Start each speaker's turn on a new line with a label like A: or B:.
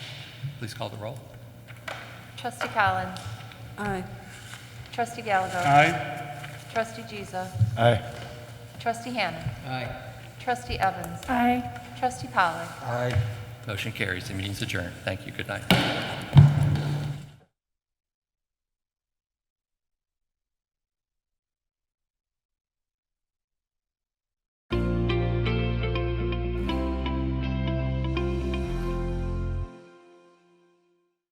A: Please call the roll.
B: Trustee Collins.
C: Aye.
B: Trustee Gallagher.
A: Aye.
B: Trustee Giza.
D: Aye.
B: Trustee Hannah.
A: Aye.
B: Trustee Evans. Aye. Trustee Pollak.
D: Aye.
A: Motion carries. The meeting's adjourned. Thank you. Good night.